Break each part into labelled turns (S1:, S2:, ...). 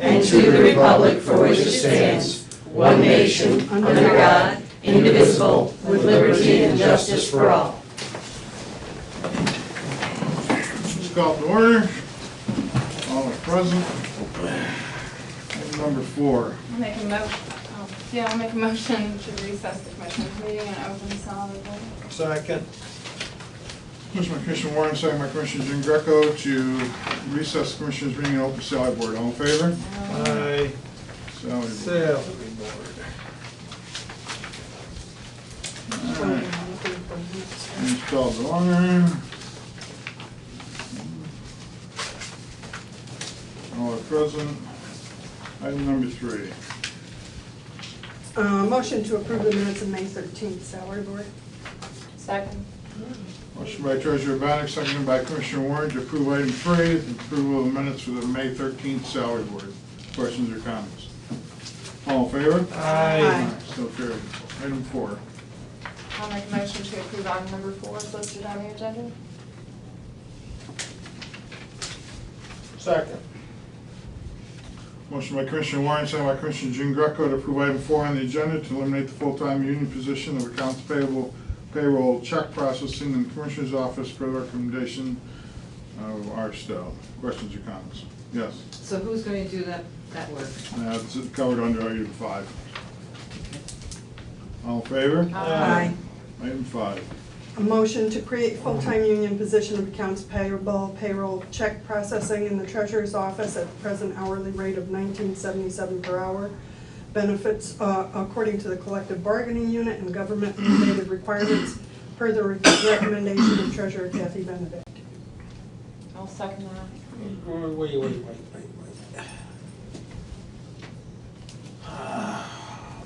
S1: and to the republic for which it stands, one nation, under God, indivisible, with liberty and justice for all.
S2: Let's call to order. All are present. Item number four.
S3: I'll make a mo, oh, yeah, I'll make a motion to recess the commissioners meeting and open solid waste.
S4: Second.
S2: Motion by Commissioner Warren, second by Commissioner Jean Greco to recess the Commissioners' meeting and open salary board. All in favor?
S4: Aye.
S2: Salary board.
S4: Salary
S2: All right. Let's call to order. All are present. Item number three.
S5: Uh, Motion to approve the minutes of May 13th, salary board.
S3: Second.
S2: Motion by Treasurer Maddox, seconded by Commissioner Warren to approve item three, the approval of minutes for the May 13th salary board. Questions or comments? All in favor?
S4: Aye.
S2: So carried. Item four.
S3: I'll make a motion to approve item number four is listed on the agenda.
S4: Second.
S2: Motion by Commissioner Warren, second by Commissioner Jean Greco to approve item four on the agenda to eliminate the full-time union position of accounts payable payroll check processing in the Commissioner's office per recommendation of R. Stowe. Questions or comments? Yes,
S6: So who's going to do that, that work?
S2: that's covered under item five. All in favor?
S4: Aye.
S2: Item five.
S5: A motion to create full-time union position of accounts payable payroll check processing in the treasurer's office at the present hourly rate of 19.77 per hour. Benefits uh, according to the collective bargaining unit and government-related requirements per the recommendation of treasurer Kathy Benedict.
S3: I'll second that.
S4: Wait, wait, wait, wait, wait. Uh,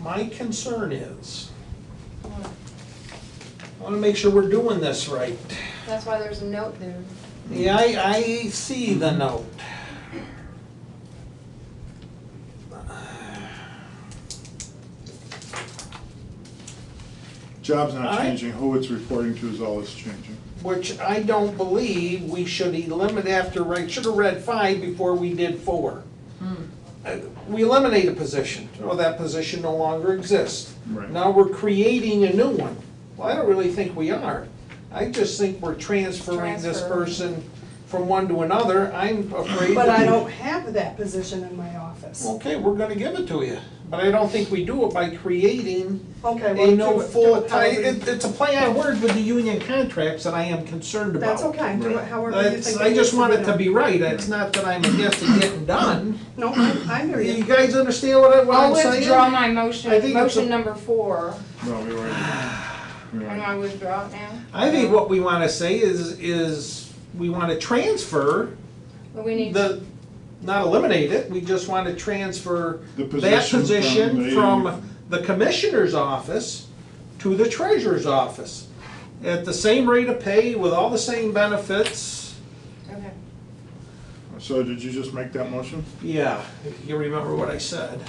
S4: My concern is, I wanna make sure we're doing this right.
S3: That's why there's a note there.
S4: Yeah, I, I see the note. Uh,
S2: Job's not
S4: Aye.
S2: changing, who it's reporting to is all that's changing.
S4: Which I don't believe we should eliminate after, I should have read five before we did four.
S5: Hmm.
S4: Uh, We eliminate a position, well, that position no longer exists.
S2: Right.
S4: Now we're creating a new one. Well, I don't really think we are. I just think we're transferring this
S3: Transfer.
S4: person from one to another. I'm afraid.
S5: But
S4: that-
S5: I don't have that position in my office.
S4: Okay, we're gonna give it to you, but I don't think we do it by creating
S5: Okay, well,
S4: a no
S5: do it- do
S4: full,
S5: it
S4: I-
S5: however you-
S4: it, it's a play on words with the union contracts that I am concerned about.
S5: That's okay, do it however you
S4: That's-
S5: think.
S4: I just want it to
S5: done.
S4: be right, it's not that I'm against it getting done.
S5: No, I, I hear
S4: You
S5: you.
S4: guys understand what I- what
S3: I'll
S4: I'm saying?
S3: withdraw my
S4: Oh, I think
S3: motion,
S4: it's a-
S3: motion number four.
S2: No, we already, we
S3: Am
S2: already,
S3: I withdraw it now?
S4: I think what we wanna say is, is we wanna transfer
S3: But we need,
S4: the, not eliminate it, we just wanna transfer
S2: The
S4: that
S2: position from
S4: position
S2: the-
S4: from the commissioner's office to the treasurer's office. At the same rate of pay with all the same benefits.
S3: okay.
S2: so did you just make that motion?
S4: Yeah, if you remember what I said.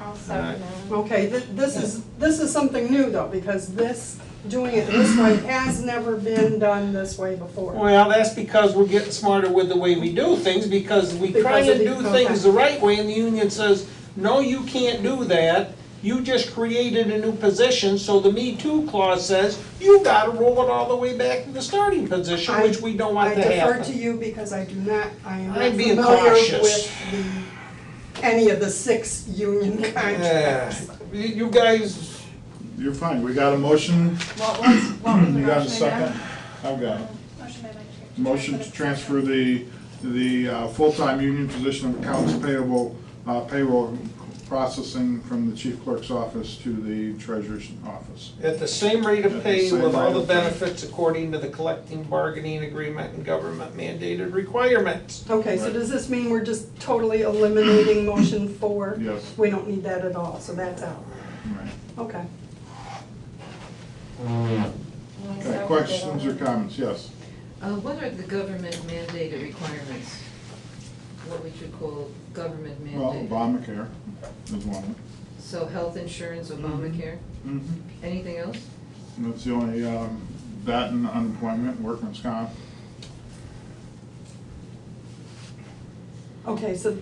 S3: I'll second that.
S5: Okay, th- this is, this is something new though, because this, doing it this way has never been done this way before.
S4: Well, that's because we're getting smarter with the way we do things, because we try
S5: Because of
S4: and
S5: the-
S4: do
S5: okay.
S4: things the right way, and the union says, no, you can't do that. You just created a new position, so the Me Too clause says, you gotta roll it all the way back to the starting position,
S5: I-
S4: which we don't want to
S5: I defer to
S4: happen.
S5: you because I do not, I am not
S4: I'm being
S5: familiar
S4: cautious.
S5: with the, any of the six union
S4: Yeah,
S5: contracts.
S4: You- you guys,
S2: You're fine, we got a motion,
S3: What was, what was the
S2: you got a
S3: motion
S2: second?
S3: again?
S2: I've got it.
S3: Motion made by
S2: Motion
S3: Commissioner-
S2: to transfer the, the uh, full-time union position of accounts payable, uh, payroll processing from the chief clerk's office to the treasurer's office.
S4: at the same rate
S2: At the
S4: of pay
S2: same
S4: with all
S2: rate
S4: the
S2: of pay.
S4: benefits according to the collective bargaining agreement and government mandated requirements.
S5: Okay, so
S2: Right.
S5: does this mean we're just totally eliminating motion four?
S2: Yes.
S5: We don't need that at all, so that's out.
S2: Right.
S5: Okay.
S3: I'll second
S2: Okay,
S3: that.
S2: questions or comments? Yes.
S6: Uh, what are the government mandated requirements? What we should call government
S2: Well,
S6: mandated?
S2: Obamacare is one.
S6: So health insurance, Obamacare,
S2: Mm-hmm.
S6: anything else?
S2: And that's the only, um, that and unemployment, workman's comp.
S5: Okay, so